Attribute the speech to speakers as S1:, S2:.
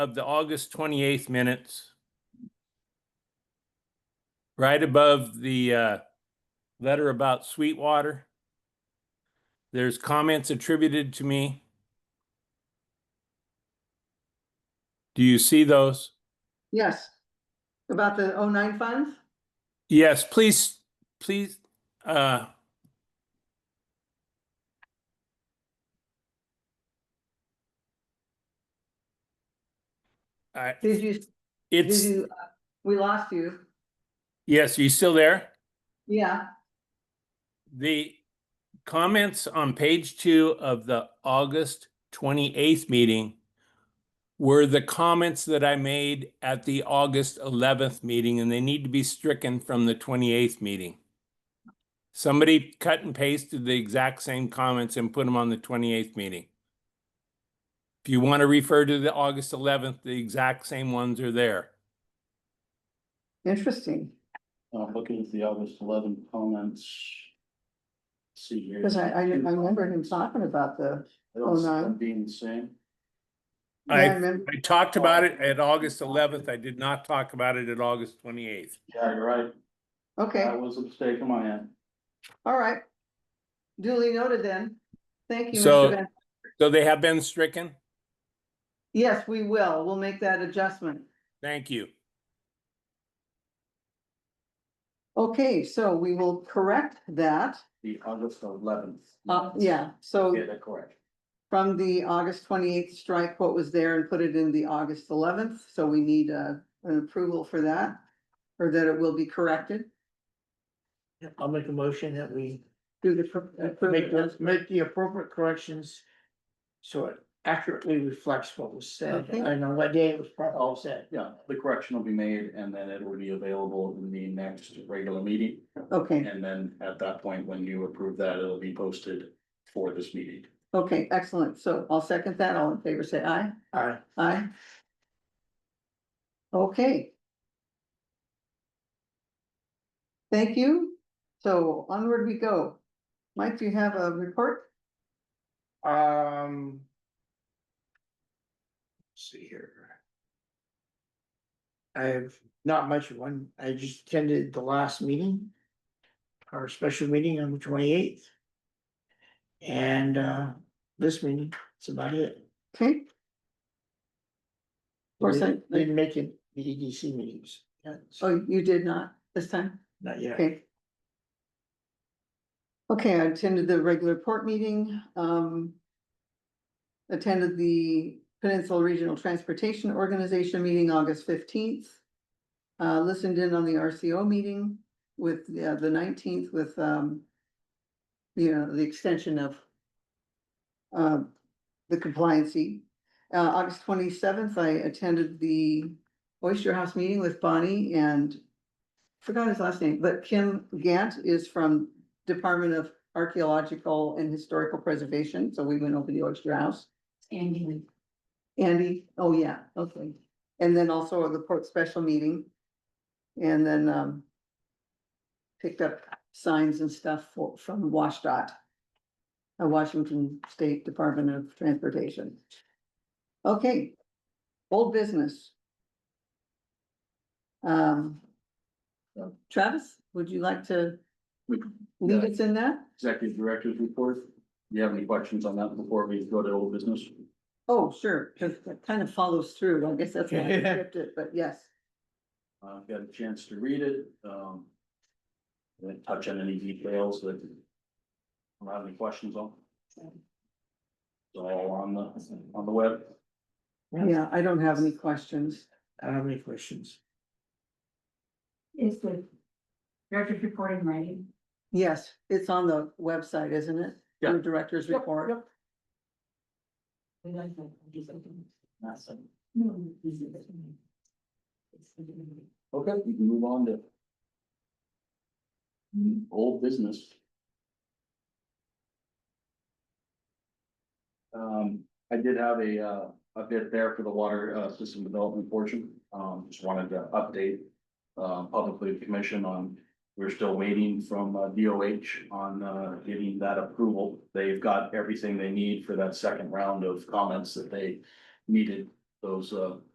S1: of the August twenty-eighth minutes. Right above the uh, letter about Sweetwater. There's comments attributed to me. Do you see those?
S2: Yes. About the 09 funds?
S1: Yes, please, please, uh. I,
S2: Did you, did
S1: it's,
S2: you, uh, we lost you.
S1: yes, you still there?
S2: Yeah,
S1: The comments on page two of the August twenty-eighth meeting were the comments that I made at the August eleventh meeting, and they need to be stricken from the twenty-eighth meeting. Somebody cut and pasted the exact same comments and put them on the twenty-eighth meeting. If you want to refer to the August eleventh, the exact same ones are there.
S2: interesting,
S3: I'm looking at the August eleven comments. See here.
S2: because I, I I remember him talking about the,
S3: I don't see
S2: 09.
S3: them Being the same.
S2: yeah,
S1: I-
S2: I remember,
S1: I talked about it at August eleventh. I did not talk about it at August twenty-eighth.
S3: Yeah, you're right.
S2: okay,
S3: That was a mistake on my end.
S2: all right. Duly noted then. Thank you,
S1: So-
S2: Mr. Van.
S1: So they have been stricken?
S2: Yes, we will. We'll make that adjustment.
S1: Thank you.
S2: Okay, so we will correct that.
S3: The August eleventh.
S2: Uh, yeah, so
S3: Yeah, that's correct.
S2: from the August twenty-eighth strike what was there and put it in the August eleventh, so we need uh an approval for that. Or that it will be corrected,
S4: Yeah, I'll make a motion that we
S2: do the. pro- approve
S4: make the,
S2: it.
S4: make the appropriate corrections. So it accurately reflects what was said
S2: Okay.
S4: and on what day it was pro- all said.
S3: Yeah, the correction will be made and then it will be available in the next regular meeting.
S2: Okay,
S3: And then at that point, when you approve that, it'll be posted for this meeting.
S2: okay, excellent, so I'll second that, all in favor, say aye,
S4: Alright,
S2: aye. Okay. Thank you, so onward we go. Mike, do you have a report?
S4: um. let's See here. I have not much of one. I just attended the last meeting. Our special meeting on the twenty eighth. And uh, this meeting, that's about it.
S2: Okay, Or
S4: They
S2: sent-
S4: Didn't make it, the EDC meetings, yeah, so
S2: oh, you did not this time?
S4: not yet.
S2: Okay. Okay, I attended the regular port meeting, um. Attended the Peninsula Regional Transportation Organization meeting August fifteenth. Uh, listened in on the RCO meeting with, uh, the nineteenth with, um. You know, the extension of. Uh, the compliancy. Uh, August twenty-seventh, I attended the Oyster House meeting with Bonnie and forgot his last name, but Kim Gant is from Department of Archaeological and Historical Preservation, so we went over the Oyster House. Andy. Andy, oh yeah, okay. And then also the port special meeting. And then, um, picked up signs and stuff for, from WashDOT, uh, Washington State Department of Transportation. Okay, old business. Um, Travis, would you like to lead us in that?
S3: Executive Director's report. Do you have any questions on that before we go to old business?
S2: Oh, sure, because that kind of follows through. I guess that's why I skipped it, but yes.
S3: I've got a chance to read it, um. Didn't touch on any details that. I don't have any questions on. It's all on the, on the web.
S2: Yeah, I don't have any questions.
S4: I don't have any questions.
S5: Is the director's report in writing?
S2: Yes, it's on the website, isn't it? Your director's
S4: Yep,
S2: report.
S4: yep.
S5: We like that. We just open it.
S3: That's it.
S5: No, this is it. It's the beginning.
S3: Okay, we can move on to old business. Um, I did have a, uh, a bit there for the water, uh, system development portion, um, just wanted to update. Uh, publicly the commission on, we're still waiting from uh, DOH on, uh, getting that approval. They've got everything they need for that second round of comments that they needed, those, uh,